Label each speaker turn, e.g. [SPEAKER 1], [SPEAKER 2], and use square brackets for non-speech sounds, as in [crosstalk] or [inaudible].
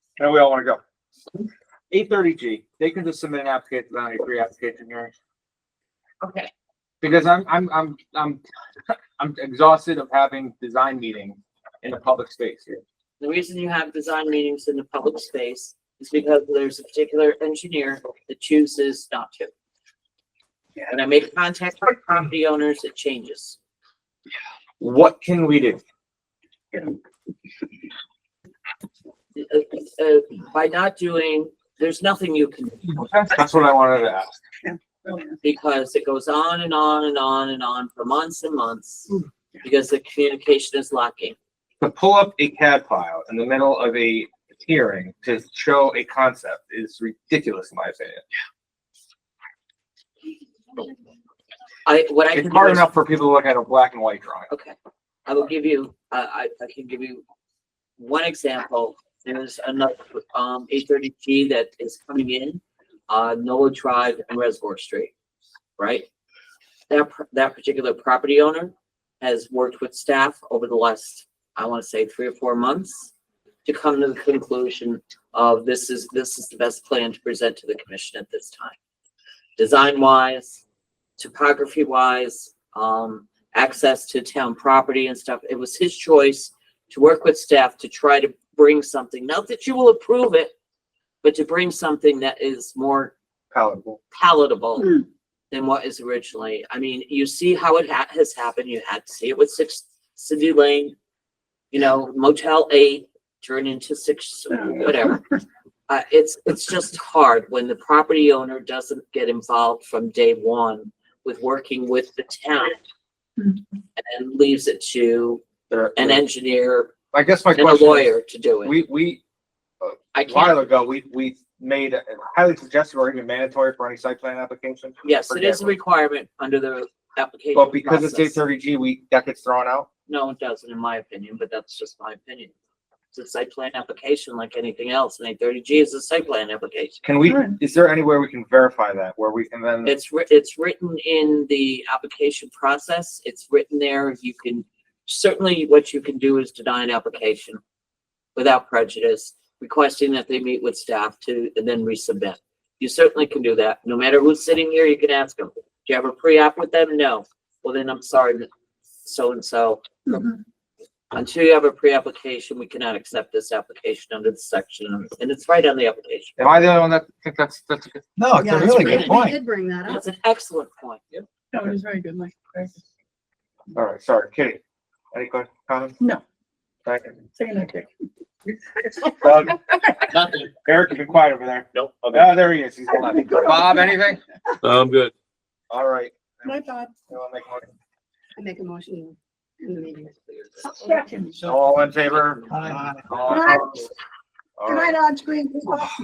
[SPEAKER 1] Now we all wanna go.
[SPEAKER 2] Eight thirty G, they can just submit an application on a pre-application hearing.
[SPEAKER 3] Okay.
[SPEAKER 2] Because I'm, I'm, I'm, I'm, I'm exhausted of having design meetings in a public space here.
[SPEAKER 3] The reason you have design meetings in the public space is because there's a particular engineer that chooses not to. When I make contact with property owners, it changes.
[SPEAKER 2] What can we do?
[SPEAKER 3] Uh, uh, By not doing, there's nothing you can, do
[SPEAKER 2] That's what I wanted to ask.
[SPEAKER 3] because it goes on and on and on and on for months and months.
[SPEAKER 2] Hmm.
[SPEAKER 3] Because the communication is lacking.
[SPEAKER 2] To pull up a CAD file in the middle of a hearing to show a concept is ridiculous in my opinion.
[SPEAKER 3] I, what I can
[SPEAKER 2] It's
[SPEAKER 3] do
[SPEAKER 2] hard
[SPEAKER 3] is,
[SPEAKER 2] enough for people to look at a black and white drawing.
[SPEAKER 3] okay, I will give you, I, I, I can give you one example. There's another, um, eight thirty G that is coming in, uh, Noah Drive and Reservoir Street, right? That, pr- that particular property owner has worked with staff over the last, I wanna say, three or four months to come to the conclusion of this is, this is the best plan to present to the commission at this time. Design wise, topography wise, um, access to town property and stuff. It was his choice to work with staff to try to bring something, not that you will approve it, but to bring something that is more
[SPEAKER 2] Palatable.
[SPEAKER 3] palatable
[SPEAKER 4] Mm.
[SPEAKER 3] than what is originally. I mean, you see how it ha- has happened. You had to see it with Six City Lane, you know, Motel Eight turned into Six, whatever. Uh, it's, it's just hard when the property owner doesn't get involved from day one with working with the town
[SPEAKER 4] Mm.
[SPEAKER 3] and leaves it to
[SPEAKER 2] There-
[SPEAKER 3] an engineer
[SPEAKER 2] I guess my
[SPEAKER 3] and a
[SPEAKER 2] question. is,
[SPEAKER 3] lawyer to do it.
[SPEAKER 2] We, we,
[SPEAKER 3] I
[SPEAKER 2] A
[SPEAKER 3] can't,
[SPEAKER 2] while ago, we, we made a highly suggested or even mandatory for any site plan application.
[SPEAKER 3] yes, it is a
[SPEAKER 2] Forget
[SPEAKER 3] requirement under the application
[SPEAKER 2] But because it's eight
[SPEAKER 3] process.
[SPEAKER 2] thirty G, we, that gets thrown out.
[SPEAKER 3] No, it doesn't, in my opinion, but that's just my opinion. It's a site plan application like anything else, and eight thirty G is a site plan application.
[SPEAKER 2] Can we,
[SPEAKER 4] Sure.
[SPEAKER 2] is there any way we can verify that where we can then,
[SPEAKER 3] It's writ, it's written in the application process, it's written there, you can, certainly what you can do is deny an application without prejudice, requesting that they meet with staff to, and then resubmit. You certainly can do that, no matter who's sitting here, you can ask them, do you have a pre-app with them? No, well then I'm sorry, so-and-so, Mm-hmm.
[SPEAKER 4] Mhm.
[SPEAKER 3] Until you have a pre-application, we cannot accept this application under the section, and it's right on the application.
[SPEAKER 2] am I the only one that think that's, that's, a good-
[SPEAKER 5] No, it's
[SPEAKER 4] Yeah,
[SPEAKER 5] a
[SPEAKER 4] it's
[SPEAKER 5] really
[SPEAKER 4] great.
[SPEAKER 5] good
[SPEAKER 4] They
[SPEAKER 5] point.
[SPEAKER 4] did bring that up.
[SPEAKER 3] That's an excellent point.
[SPEAKER 4] That was very good, Mike.
[SPEAKER 2] all right, sorry, Kitty. Any que- comments?
[SPEAKER 4] No.
[SPEAKER 2] Thank you.
[SPEAKER 4] [laughs] Second, okay.
[SPEAKER 2] Doug,
[SPEAKER 3] Nothing.
[SPEAKER 2] Eric, you've been quiet over there.
[SPEAKER 6] Nope.
[SPEAKER 2] Oh, there he is. He's holding up. Bob, anything?
[SPEAKER 6] I'm good.
[SPEAKER 2] All right.
[SPEAKER 4] My bad.
[SPEAKER 2] You wanna make a motion?
[SPEAKER 4] I make a motion in the meeting.
[SPEAKER 5] Uh,
[SPEAKER 2] All in favor? All opposed? All right.
[SPEAKER 4] on screen.